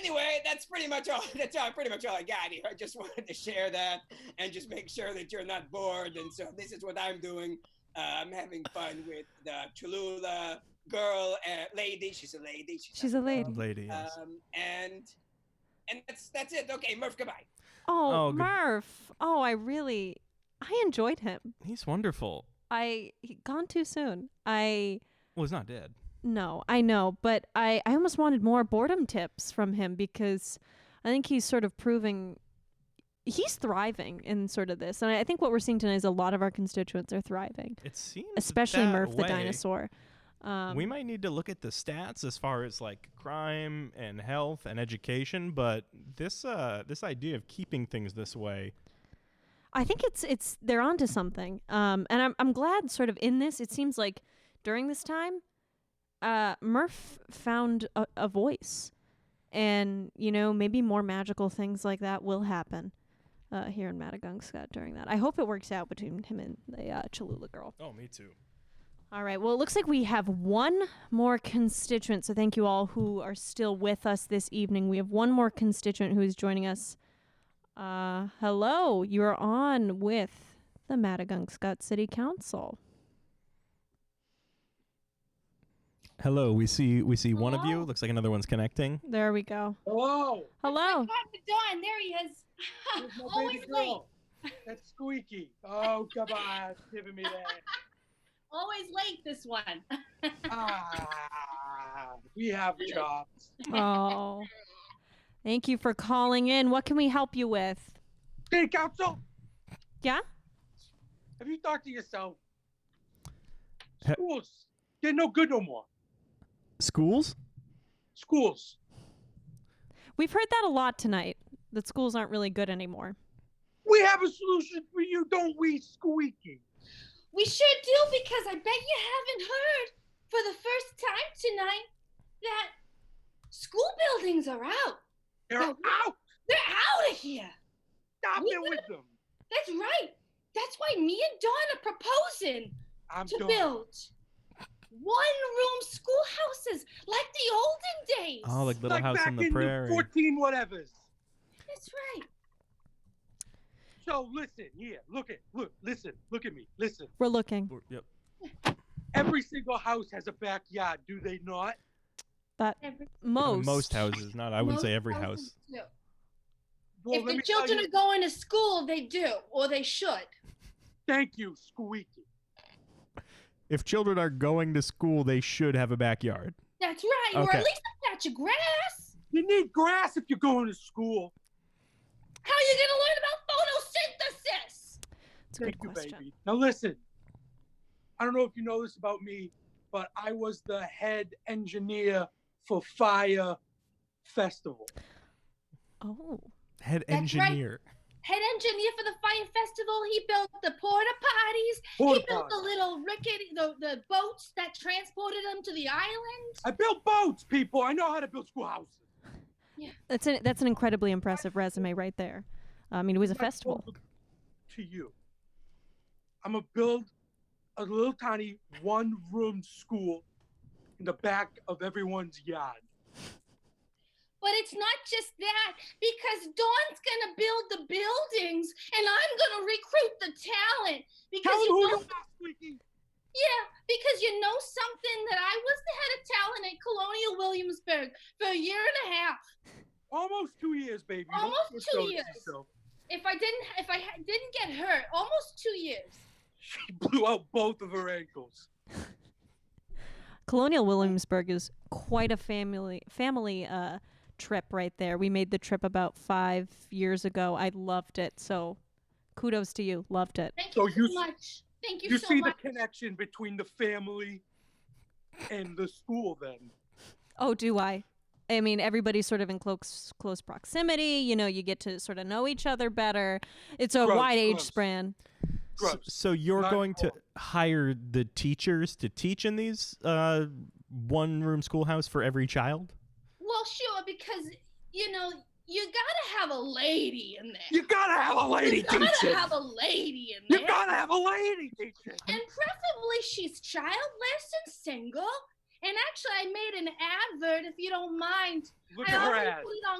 anyway, that's pretty much all. That's all, pretty much all I got here. I just wanted to share that and just make sure that you're not bored. And so this is what I'm doing. Uh, I'm having fun with the Cholula girl, uh, lady. She's a lady. She's a lady. Lady. yes. Um, and and that's that's it. Okay, Murph, goodbye. Oh, Oh, good- Murph. Oh, I really, I enjoyed him. He's wonderful. I he, gone too soon. I Well, he's not dead. no, I know, but I I almost wanted more boredom tips from him because I think he's sort of proving he's thriving in sort of this, and I, I think what we're seeing tonight is a lot of our constituents are thriving, It seems especially that Murph the way. dinosaur. Um, we might need to look at the stats as far as like crime and health and education, but this uh this idea of keeping things this way I think it's it's they're onto something. Um, and I'm I'm glad sort of in this. It seems like during this time, uh, Murph found a, a voice, and you know maybe more magical things like that will happen uh, here in Madagungscut during that. I hope it works out between him and the uh, Cholula girl. Oh, me too. All right. Well, it looks like we have one more constituent. So thank you all who are still with us this evening. We have one more constituent who is joining us. Uh, hello. You are on with the Madagungscut City Council. Hello, we see we see one of you. Looks like another one's connecting. There we go. Oh. Hello. Hello. God, Dawn, there he is. There's my Always baby late. girl. That's squeaky. Oh, come on. Giving me that. Always late, this one. Ah, we have jobs. Oh. Thank you for calling in. What can we help you with? Hey, council. Yeah? Have you talked to yourself? He- Schools. They're no good no more. Schools? Schools. We've heard that a lot tonight that schools aren't really good anymore. We have a solution for you. Don't we, squeaky? We sure do because I bet you haven't heard for the first time tonight that school buildings are out. They're Oh. out. They're out of here. Stop We it with them. That's right. That's why me and Dawn are proposing I'm to done. build one-room schoolhouses like the olden days. Oh, like Little like House back on the in Prairie. 14 whatevers. That's right. So listen here. Look at, look, listen, look at me. Listen. We're looking. We're- yep. Every single house has a backyard, do they not? That Every- most Most houses, not I wouldn't say most every house. houses do. Well, if let the me tell children you- are going to school, they do, or they should. Thank you, Squeaky. If children are going to school, they should have a backyard. That's right. Or Okay. at least a patch of grass. You need grass if you're going to school. How are you going to learn about photosynthesis? It's a Thank good you, question. baby. Now listen. I don't know if you know this about me, but I was the head engineer for Fire Festival. Oh. Head That's right. engineer. Head engineer for the fire festival, he built the porta potties. Porta he built the potties. little rickety, the, the boats that transported them to the island. I built boats, people. I know how to build schoolhouses. That's an that's an incredibly impressive resume right there. I mean, it was a I festival. told To you, I'm gonna build a little tiny one-room school in the back of everyone's yard. But it's not just that, because Dawn's going to build the buildings, and I'm going to recruit the talent. Because Tell them you who know you are, Squeaky. Yeah, because you know something that I was the head of talent at Colonial Williamsburg for a year and a half. Almost two years, baby. Almost Don't two show years. yourself. If I didn't, if I ha- didn't get hurt, almost two years. She blew out both of her ankles. Colonial Williamsburg is quite a family family uh, trip right there. We made the trip about five years ago. I loved it. So, kudos to you. Loved it. Thank So you so you- much. Thank you, You so see much. the connection between the family and the school, then. Oh, do I? I mean, everybody's sort of in close close proximity. You know, you get to sort of know each other better. It's a Gross, wide age gross. span. So, Gross. so you're Not going to cool. hire the teachers to teach in these uh, one room schoolhouse for every child? Well, sure, because you know you gotta have a lady in there. You gotta have a lady You gotta teacher. have a lady in You there, gotta have a lady teacher. and preferably she's childless and single, And actually, I made an advert, if you don't mind. Look I at her often ass. put it on